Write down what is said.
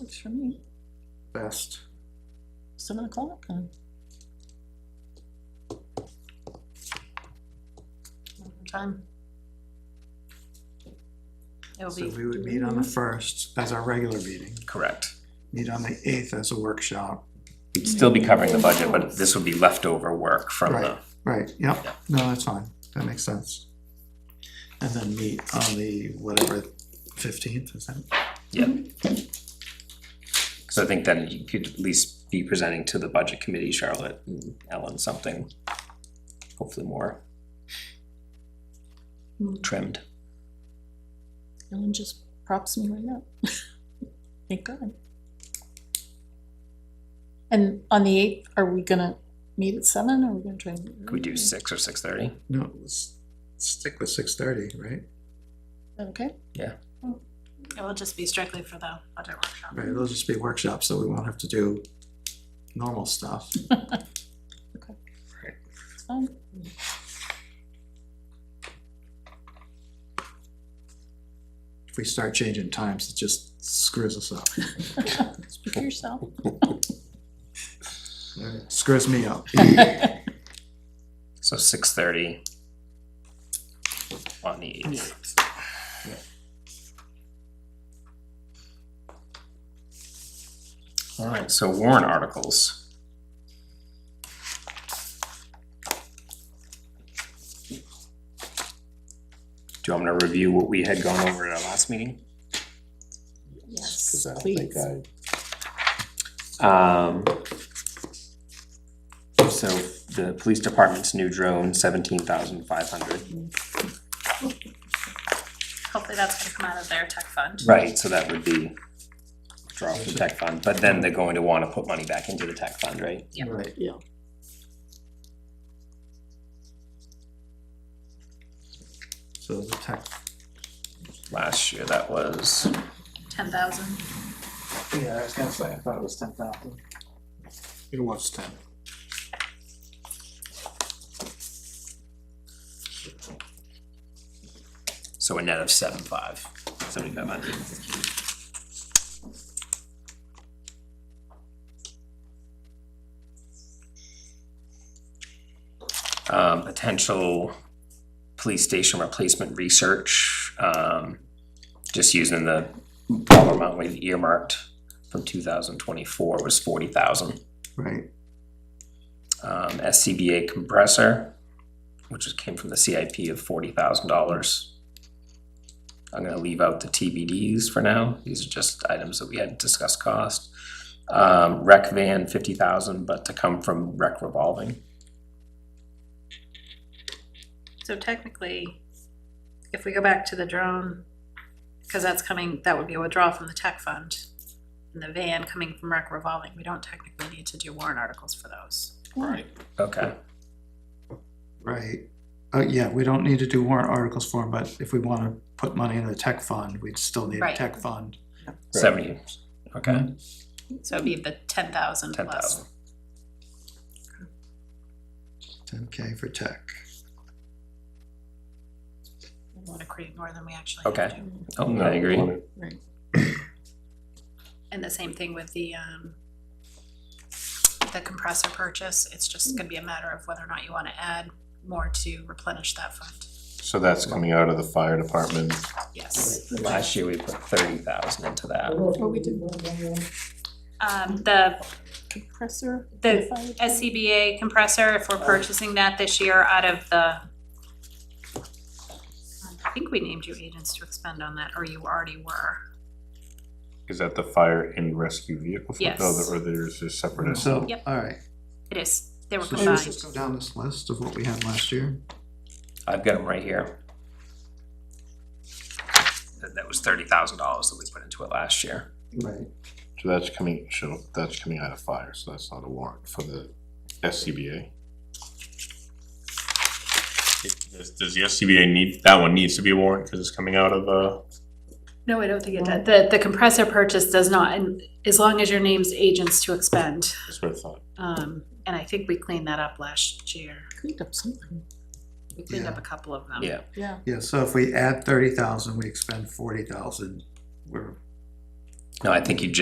Works for me, Best. seven o'clock, uh, what Time. It'll be. So we would meet on the first as our regular meeting, Correct. meet on the eighth as a workshop. We'd still be covering the budget, but this would be leftover work from the, Right, right, yep, Yeah. no, that's fine, that makes sense. And then meet on the whatever fifteenth, is that? because I think then you could at least be presenting to the budget committee, Charlotte and Ellen, something hopefully more Mm. trimmed. Ellen just props me right up. Thank God. And on the eighth, are we gonna meet at seven, or are we gonna try? and- Could we do six or six thirty? No, let's stick with six thirty, right? Okay. It will just be strictly for the budget workshop. Right, it'll just be workshops, so we won't have to do normal stuff. It's fine. If we start changing times, it just screws us up, Speak for yourself. screws me up. So six thirty on the eighth. All right, so warrant articles. Do you want me to review what we had gone over at our last meeting? Yes, please. Um, so the police department's new drone, seventeen thousand five hundred. Hopefully that's gonna come out of their tech fund. Right, so that would be draw from tech fund, but then they're going to wanna put money back into the tech fund, right? Yeah. Right, Yeah. so the tech, Last year that was, Ten thousand. Yeah, I was gonna say, I thought it was ten thousand. it was ten. so a net of seven five, seventy-five hundred. Um, potential police station replacement research, um, just using the dollar amount we've earmarked from two thousand twenty-four was forty thousand. Right, um, SCBA compressor, which is- came from the CIP of forty thousand dollars. I'm gonna leave out the TBDs for now, these are just items that we hadn't discussed cost. Um, rec van, fifty thousand, but to come from rec revolving, So technically, if we go back to the drone, cause that's coming, that would be a withdrawal from the tech fund. And the van coming from rec revolving, we don't technically need to do warrant articles for those. Right. okay, right. Uh, yeah, we don't need to do warrant articles for them, but if we wanna put money in the tech fund, we'd still need a Right. tech fund. seventy, okay, So it'd be the ten thousand ten plus. thousand. Ten K for tech. We wanna create more than we actually Okay. have to. Oh, I agree, Right. And the same thing with the, um, the compressor purchase, it's just gonna be a matter of whether or not you wanna add more to replenish that fund, So that's coming out of the fire department. yes. last year we put thirty thousand into that, Oh, we did Um, the compressor. The modified. SCBA compressor, if we're purchasing that this year out of the, I think we named you agents to expend on that, or you already were. Is that the fire and rescue vehicle? fund? Yes. Or there's a separate. So, Yep. alright, It is, they were so should we combined. just go down this list of what we had last year? I've got them right here. That, that was thirty thousand dollars that we put into it last year. Right. So that's coming, so that's coming out of fire, so that's not a warrant for the SCBA. Does, does the SCBA need, that one needs to be a warrant because it's coming out of, uh? No, I don't think it does. The, the compressor purchase does not, and as long as your name's agents to expend. That's what I thought. Um, and I think we cleaned that up last year. Cleaned up something, We cleaned up Yeah. a couple of them. Yeah. yeah. Yeah, so if we add thirty thousand, we expend forty thousand, we're No, I think you just